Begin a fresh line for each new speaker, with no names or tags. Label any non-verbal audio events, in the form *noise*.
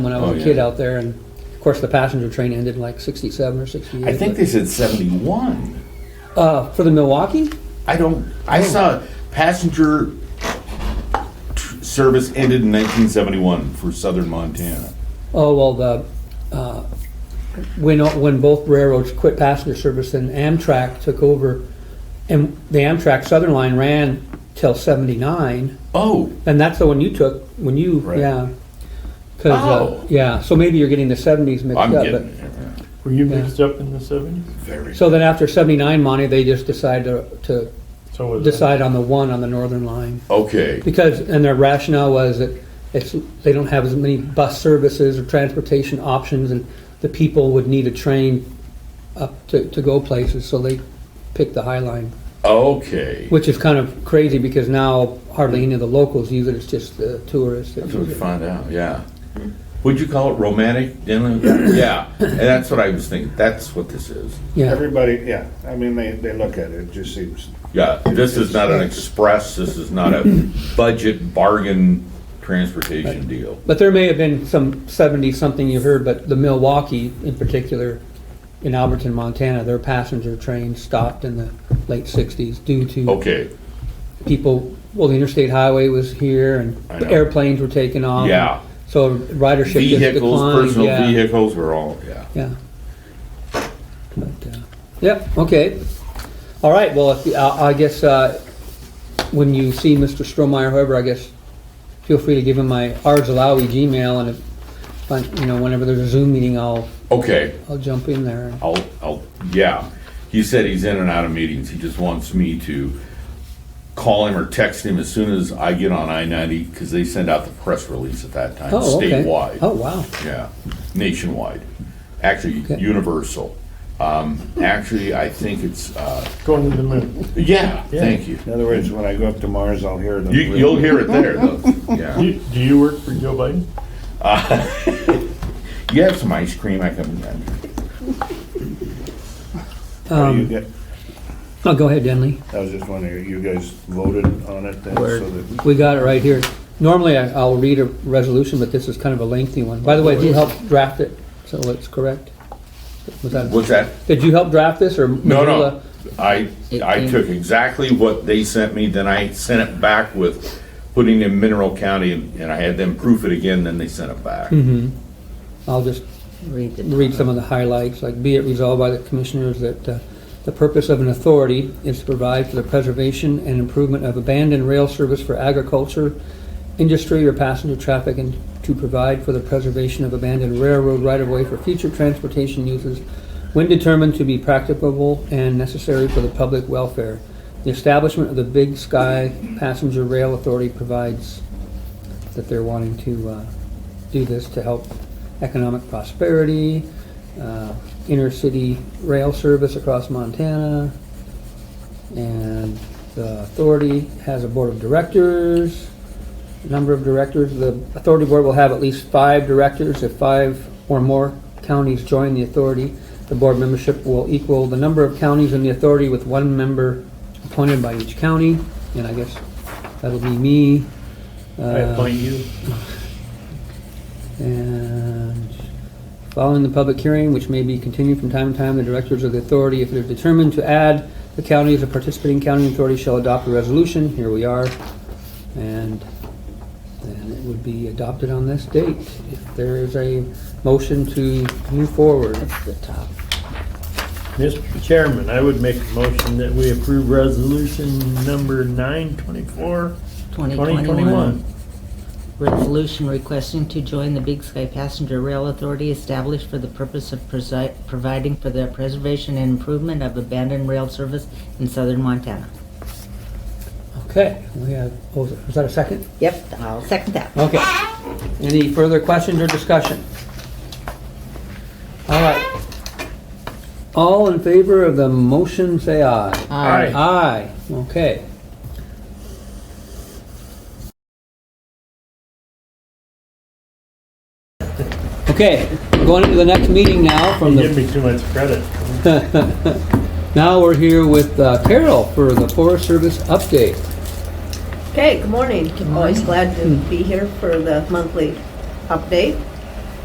when I was
Oh,
a
yeah.
kid out there, and of course the passenger train ended in like '67 or '68.
I think they said 71.
uh, for the Milwaukee,
I don't. I saw passenger tr- service ended in 1971 for southern Montana.
oh well, the uh, when when both railroads quit passenger service and Amtrak took over, and the Amtrak Southern line ran till '79,
Oh,
and that's the one you took when you
Right.
yeah. 'Cause,
Oh.
uh, yeah, so maybe you're getting the '70s mixed
I'm
up.
getting
but-
it.
Were you
Yeah.
mixed up in the seventies?
Very.
so then after '79, Monty, they just decided to, to
So was I.
decide on the one on the northern line.
okay.
Because, and their rationale was that it's, they don't have as many bus services or transportation options, and the people would need a train up to, to go places, so they picked the High Line,
Okay.
which is kind of crazy because now hardly any of the locals use it, it's just the tourists. that
That's what
use
we
it.
find out. Yeah. Would you call it romantic dinner? yeah. And that's what I was thinking. That's what this is.
Yeah,
Everybody, yeah, I mean, they, they look at it, it just seems,
Yeah. This is not an express. This is not a budget bargain transportation deal.
but there may have been some seventy-something you heard, but the Milwaukee in particular, in Alberton, Montana, their passenger train stopped in the late sixties due to
Okay.
people, well, the interstate highway was here
I
and
know.
airplanes were taking off.
Yeah.
So ridership just
Vehicles,
declined.
personal
yeah,
vehicles were all, yeah.
Yeah. But, uh, Yep, okay. All right, well, if- I I guess uh, when you see Mr. Stromeyer, whoever, I guess, feel free to give him my Arzalawi Gmail and if, I- you know, whenever there's a Zoom meeting, I'll,
Okay.
I'll jump in there.
I'll, I'll, yeah. He said he's in and out of meetings. He just wants me to call him or text him as soon as I get on I ninety, because they send out the press release at that time,
Oh, okay. Oh,
statewide.
wow.
Yeah, nationwide, actually
Okay.
universal. Um, actually, I think it's, uh,
Going to the moon.
yeah, thank you.
in other words, when I go up to Mars, I'll hear them.
You, you'll hear it there
*laughs*
though, yeah.
You, do you work for Joe Biden?
You have some ice cream, I can,
Are you get-
Oh, go ahead, Denley.
I was just wondering, you guys voted on it then,
Word.
so that,
We got it right here. Normally, I- I'll read a resolution, but this is kind of a lengthy one. By the way, you helped draft it, so it's correct? Was that,
what's that?
did you help draft this, or?
No,
Marilla?
no. I, I took exactly what they sent me, then I sent it back with putting in Mineral County, and and I had them proof it again, then they sent it back.
I'll just
Read the.
read some of the highlights, like be it resolved by the commissioners that uh, the purpose of an authority is to provide for the preservation and improvement of abandoned rail service for agriculture, industry, or passenger traffic, and to provide for the preservation of abandoned railroad right-of-way for future transportation uses when determined to be practicable and necessary for the public welfare. The establishment of the Big Sky Passenger Rail Authority provides that they're wanting to uh, do this to help economic prosperity, uh, inner city rail service across Montana, and the authority has a board of directors, number of directors. The authority board will have at least five directors. If five or more counties join the authority, the board membership will equal the number of counties in the authority with one member appointed by each county. And I guess that'll be me.
I
Uh,
appoint you.
and following the public hearing, which may be continued from time to time, the directors of the authority, if they're determined to add the county as a participating county authority, shall adopt a resolution. Here we are. And and it would be adopted on this date. If there is a motion to move forward.
That's the top.
Mr. Chairman, I would make a motion that we approve resolution number nine twenty-four,
Twenty
twenty
twenty-one.
twenty-one.
Resolution requesting to join the Big Sky Passenger Rail Authority established for the purpose of presi- providing for the preservation and improvement of abandoned rail service in southern Montana.
Okay, we have, oh, was that a second?
Yep, I'll second that.
Okay. Any further questions or discussion? All right. All in favor of the motion, say aye.
Aye.
Aye, okay. Okay, we're going into the next meeting now from
Give
the,
me too much credit.
now we're here with uh, Carol for the Forest Service update.
Okay, good morning. Always glad to be here for the monthly update.